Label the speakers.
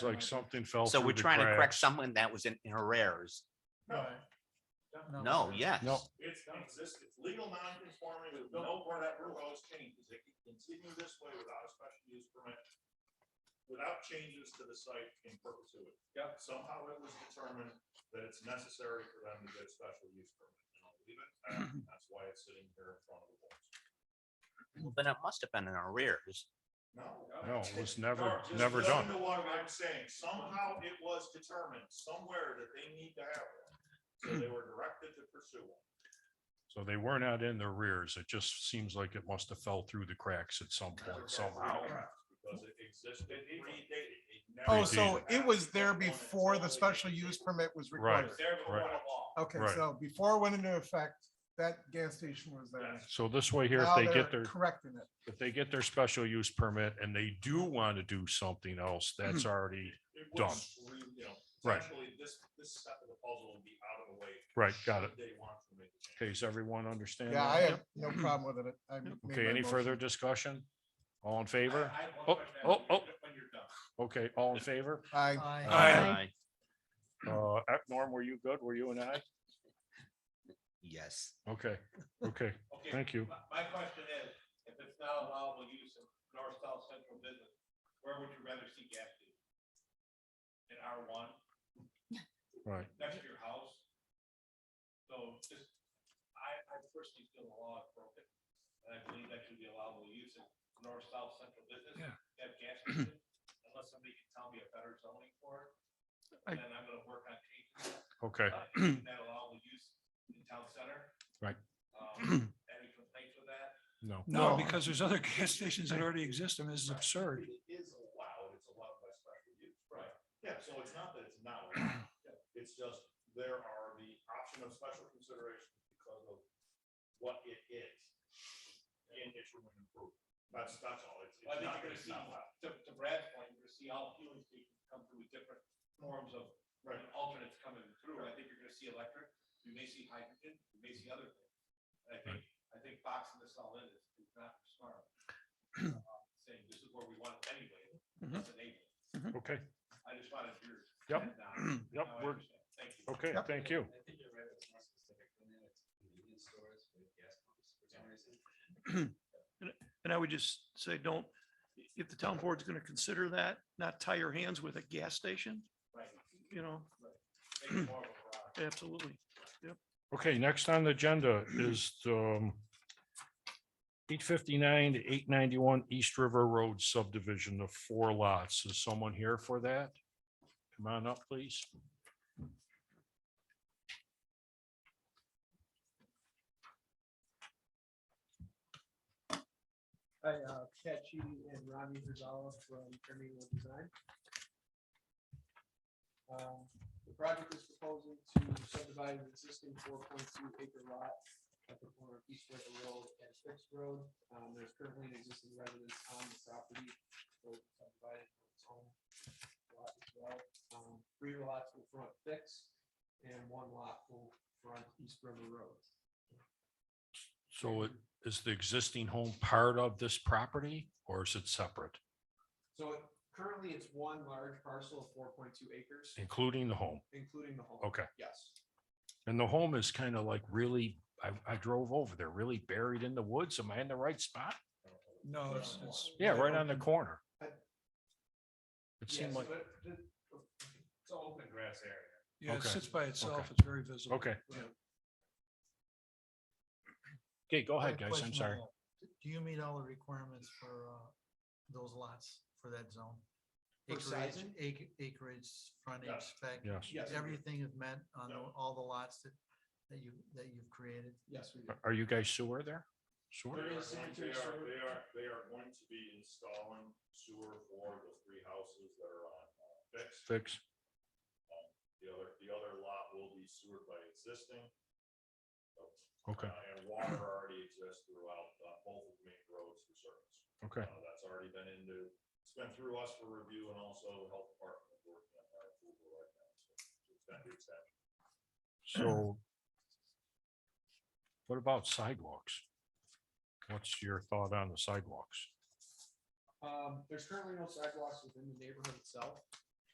Speaker 1: It's like something fell
Speaker 2: So
Speaker 1: through
Speaker 2: we're
Speaker 1: the
Speaker 2: trying to correct
Speaker 1: cracks.
Speaker 2: someone that was in in arrears.
Speaker 3: No, Oh,
Speaker 2: No, yes.
Speaker 1: No.
Speaker 3: it's non-existent, It's legal non-conforming with no whatever laws changes, it can continue this way without a special use permit. Without changes to the site in perpetuity. Yep. Somehow it was determined that it's necessary for them to get a special use permit, and I'll leave it, at that. that's why it's sitting here in front of the board.
Speaker 2: Then it must have been in arrears.
Speaker 3: No.
Speaker 1: No, it was never,
Speaker 3: No, just
Speaker 1: never
Speaker 3: listen
Speaker 1: done.
Speaker 3: to what I'm saying, somehow it was determined somewhere that they need to have one, so they were directed to pursue one.
Speaker 1: So they were not in their rears. It just seems like it must have fell through the cracks at some point somehow.
Speaker 3: Because it existed, it predated. it never
Speaker 4: Oh, so
Speaker 3: existed.
Speaker 4: it was there before the special use permit Oh. was
Speaker 1: Right.
Speaker 3: It
Speaker 4: required.
Speaker 3: was there before
Speaker 1: Right.
Speaker 3: the law.
Speaker 4: Okay,
Speaker 1: Right.
Speaker 4: so before it went into effect, that gas station was there.
Speaker 3: Yes.
Speaker 1: So this way here, if
Speaker 4: Now
Speaker 1: they
Speaker 4: they're
Speaker 1: get their,
Speaker 4: Correcting it.
Speaker 1: if they get their special use permit and they do want to do something else,
Speaker 2: Mm-hmm.
Speaker 1: that's already,
Speaker 3: It
Speaker 1: Done.
Speaker 3: was, re- you know,
Speaker 1: Right.
Speaker 3: Essentially, this, this step of the puzzle will be out of the way.
Speaker 1: right, got it.
Speaker 3: should They want to make. a change.
Speaker 1: Okay, does everyone understand?
Speaker 4: Yeah,
Speaker 1: that?
Speaker 4: I have no problem with it. I made
Speaker 1: uh, Okay,
Speaker 4: my
Speaker 1: any further
Speaker 4: motion.
Speaker 1: discussion? All in favor?
Speaker 3: I- I have one
Speaker 1: Oh,
Speaker 3: question
Speaker 1: oh,
Speaker 3: when you're- When you're done.
Speaker 1: Okay, all in favor?
Speaker 4: I,
Speaker 2: Aye.
Speaker 1: Uh, uh, Norm, were you good? Were you and I?
Speaker 2: Yes.
Speaker 1: Okay, okay,
Speaker 3: Okay,
Speaker 1: thank you.
Speaker 3: My, my question is, if it's not allowable use of north, south, central business, where would you rather see gas station? In R one,
Speaker 1: Right,
Speaker 3: next to your house? So just, I, I personally feel the law is broken, and I believe that should be allowable use of north, south, central business.
Speaker 1: Yeah.
Speaker 3: Have gas station, unless somebody can tell me a better zoning for it,
Speaker 1: I-
Speaker 3: and then I'm gonna work on changing that.
Speaker 1: okay,
Speaker 3: Uh, isn't That allowable use in town center.
Speaker 1: Right.
Speaker 3: Um, any complaints with that?
Speaker 1: no.
Speaker 4: No.
Speaker 5: No, because there's other gas stations that already exist and this is
Speaker 3: Right.
Speaker 5: absurd.
Speaker 3: It is allowed, it's allowed by special use. Right. Yeah, so it's not that it's not, allowed. it's just there are the option of special consideration because of what it is. And it's room and improvement. That's, that's all. It's,
Speaker 6: Well, I
Speaker 3: it's
Speaker 6: think
Speaker 3: not
Speaker 6: you're gonna
Speaker 3: that it's
Speaker 6: see,
Speaker 3: not allowed.
Speaker 6: to, to Brad's point, you're gonna see all fueling stations come through with different forms of
Speaker 3: Right.
Speaker 6: and alternates coming through. I think you're gonna see electric, you may see hydrogen, you may see other things. And I think, I think boxing this all in is, is not smart. Uh, Saying this is where we want it anyway, let's enable it.
Speaker 1: Okay,
Speaker 6: I just wanted your.
Speaker 1: Mm-hmm. Yep.
Speaker 6: and, uh,
Speaker 1: yep,
Speaker 6: now I
Speaker 1: we're,
Speaker 6: understand. Thank you.
Speaker 1: okay,
Speaker 4: Yep.
Speaker 1: thank you.
Speaker 7: I think you're right, it's more specific than that, it's convenience stores with gas pumps for some reason.
Speaker 5: And I would just say, don't, if the town board's going to consider that, not tie your hands with a gas station,
Speaker 6: Right.
Speaker 5: you know,
Speaker 6: Make it more of a product.
Speaker 5: absolutely.
Speaker 1: Okay, next on the agenda is um eight fifty-nine to eight ninety-one East River Road subdivision of four lots. Is someone here for that? Come on up, please.
Speaker 8: Hi, uh, Pat Sheedy and Ronnie Rizal from Terminal Design. Um, The project is proposing to subdivide an existing four point two acre lot at the corner of East River Road and Fix Road. Um, There's currently an existing residence on the property, so it's subdivided for its own lot as well. Um, Three lots will front Fix and one lot will front East River Road.
Speaker 1: So it is the existing home part of this property or is it separate,
Speaker 8: So it- currently it's one large parcel of four point two acres,
Speaker 1: including the home?
Speaker 8: including the home.
Speaker 1: Okay,
Speaker 8: Yes.
Speaker 1: and the home is kind of like really, I I drove over there, really buried in the woods. Am I in the right spot?
Speaker 5: No, it's, it's.
Speaker 1: Yeah, right on the corner. It
Speaker 8: Yes,
Speaker 1: seemed like,
Speaker 8: but the- It's all open grass area.
Speaker 5: Yeah, it
Speaker 1: Okay.
Speaker 5: sits by itself.
Speaker 1: Okay.
Speaker 5: It's very visible.
Speaker 1: okay.
Speaker 5: Yeah.
Speaker 1: Okay, go
Speaker 9: I
Speaker 1: ahead,
Speaker 9: have a
Speaker 1: guys. I'm
Speaker 9: question
Speaker 1: sorry.
Speaker 9: on that. Do you meet all the requirements for uh, those lots for that zone?
Speaker 8: For
Speaker 9: Acreage,
Speaker 8: sizing?
Speaker 9: ac- acreage, frontage
Speaker 3: Yes.
Speaker 9: spec,
Speaker 1: Yes.
Speaker 8: Yes,
Speaker 9: everything is met on
Speaker 3: Yeah.
Speaker 9: the- all the lots that, that you, that you've created?
Speaker 8: yes, we do.
Speaker 1: Are- Are you guys sewer there? Sewer?
Speaker 8: There
Speaker 3: They are,
Speaker 8: is sanitary
Speaker 3: they are,
Speaker 8: sewer.
Speaker 3: they are, they are going to be installing sewer for the three houses that are on uh, fixed.
Speaker 1: Fix.
Speaker 3: The other, the other lot will be sewered by existing.
Speaker 1: Okay,
Speaker 3: uh, And water already exists throughout uh, both of the main roads for service.
Speaker 1: okay,
Speaker 3: Uh, That's already been into, it's been through us for review and also the health department is working on our approval right now. So it's been to accept.
Speaker 1: so. What about sidewalks? What's your thought on the sidewalks?
Speaker 8: Um, there's currently no sidewalks within the neighborhood itself.